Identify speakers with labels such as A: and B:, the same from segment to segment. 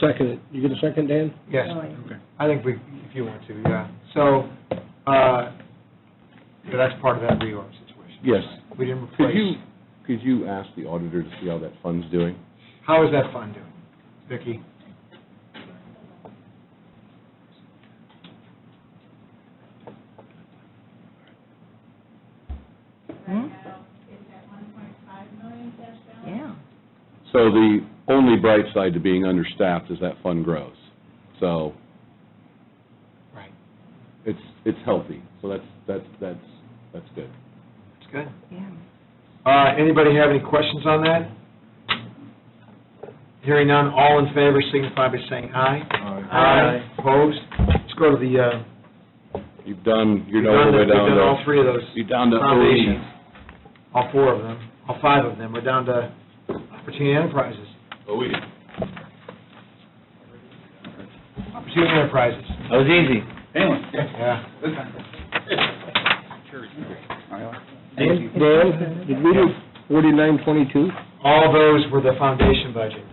A: second it. You get a second, Dan?
B: Yes,
C: Okay.
B: I think we, if you want to, yeah. So, uh, so that's part of that reorg situation.
C: Yes.
B: We didn't
C: Could you,
B: replace,
C: could you ask the auditor to see how that fund's doing?
B: how is that fund doing, Vicki?
D: Hmm?
C: So the only bright side to being understaffed is that fund grows. So
B: Right,
C: it's, it's healthy, so that's, that's, that's, that's good.
B: that's good.
D: Yeah, yeah.
B: Uh, anybody have any questions on that? Hearing none, all in favor signify by saying aye.
D: Aye.
B: Opposed? Let's go to the, uh,
C: You've done,
B: we've
C: you're all
B: done
C: the
B: the-
C: way
B: we've
C: down
B: done all
C: to,
B: three of those.
C: you're down to
B: Foundations.
C: OE.
B: All four of them, all five of them, we're down to Opportunity Enterprises.
C: OE.
B: Opportunity Enterprises,
E: That was easy.
B: yeah.
E: Thank you.
A: Dan, did we do forty-nine twenty-two?
B: All those were the foundation budget.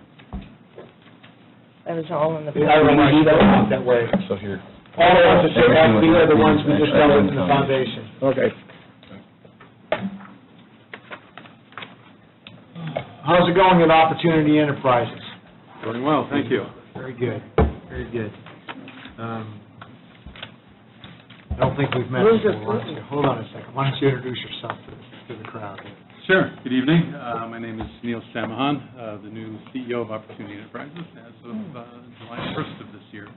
D: That was all in the.
B: I don't know why you don't think that way.
C: So here.
B: All the ones that took out, these are the ones we just dealt with in the foundation.
A: Okay.
B: How's it going at Opportunity Enterprises?
C: Doing well, thank you.
B: Very good, very good. Um, I don't think we've met
D: Where's your
B: before. Why don't you- Hold on a second, why don't you introduce yourself to, to the crowd?
F: Sure. Good evening. Uh, My name is Neil Samahan, uh, the new CEO of Opportunity Enterprises as of uh, July 1st of this year.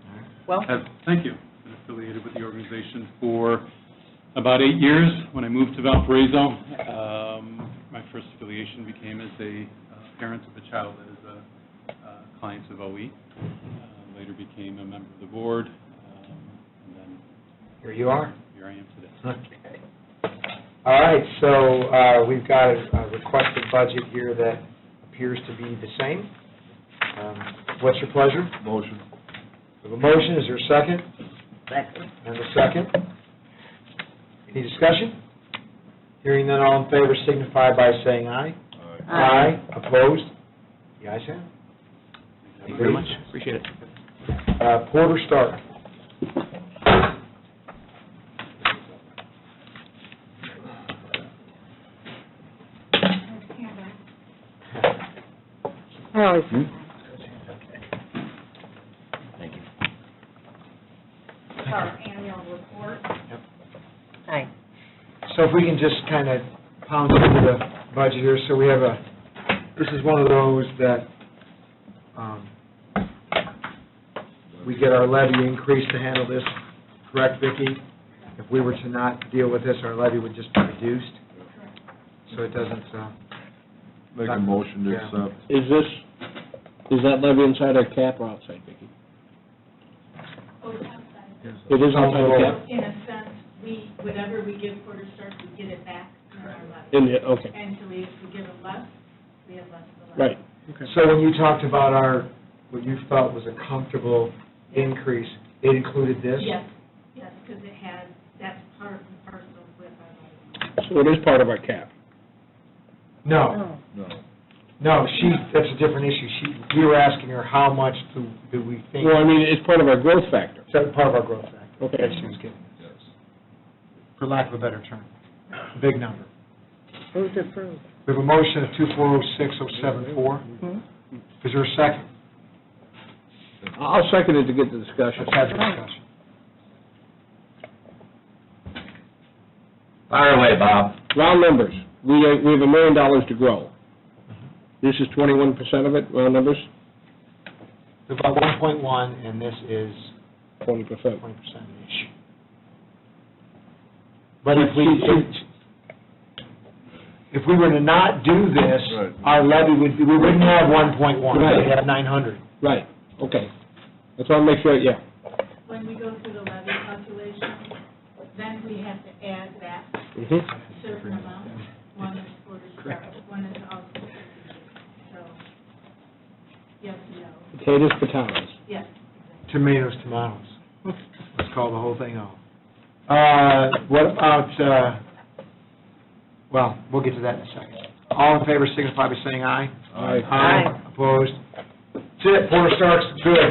D: Well,
F: Have- Thank you. Been affiliated with the organization for about eight years. When I moved to Valparaiso, um, my first affiliation became as a uh, parent of a child as a uh, client of OE. Uh, Later became a member of the board, um, and then
B: Here you are.
F: here I am today.
B: Okay. All right, so uh, we've got a a requested budget here that appears to be the same. Um, What's your pleasure?
C: Motion.
B: We have a motion, is there a second?
D: second.
B: And a second. Any discussion? Hearing none, all in favor signify by saying aye.
D: Aye.
B: Opposed? The ayes have it.
F: Thank you very much.
B: Appreciate it. Uh, Porter Stark.
D: I
C: E.
D: always-
G: our annual report.
D: Aye.
B: So if we can just kind of pound through the budget here, so we have a, this is one of those that, um, we get our levy increase to handle this, correct, Vicki? If we were to not deal with this, our levy would just be reduced, so it doesn't, uh,
C: Make a motion to accept.
A: Is this, is that levy inside our cap or outside, Vicki?
G: Oh, it's outside.
A: It is outside the cap?
G: In a sense, we, whatever we give Porter Stark, we get it back in our levy.
A: In the, okay,
G: And so we, if we give them less, we have less of the levy.
A: right.
B: so when you talked about our, what you felt was a comfortable increase, it included this?
G: Yes, yes, because it has, that's part and parcel with our levy.
A: So it is part of our cap.
B: No,
D: Oh,
B: no, she, that's a different issue, she, we were asking her how much do, do we think?
A: Well, I mean, it's part of our growth factor.
B: Is that part of our growth factor?
A: Okay.
B: That she was giving us, for lack of a better term, a big number.
D: Move to approve.
B: We have a motion of two four oh six oh seven four.
D: Hmm?
B: Is there a second?
A: I'll second it to get the discussion.
B: Let's have the discussion.
E: Fire away, Bob.
A: Round numbers, we, are- we have a million dollars to grow.
E: Mm-hmm.
A: This is twenty-one percent of it, round numbers,
B: It's about one point one, and this is
A: twenty percent.
B: twenty percent issue. But if we, if we were to not do this,
C: Right.
B: our levy would, be- we wouldn't have one point one, we'd have nine hundred.
A: Right, okay. That's why I make sure, yeah.
G: When we go through the levy calculation, then we have to add back
A: Mhm.
G: a certain amount. One is Porter Stark, one is also, so, yes, no,
A: Potatoes, potatoes.
G: yes.
B: Tomatoes, tomatoes. Let's call the whole thing off. Uh, what about, uh, well, we'll get to that in a second. All in favor signify by saying aye.
C: Aye.
B: Opposed? That's it, Porter Stark's good.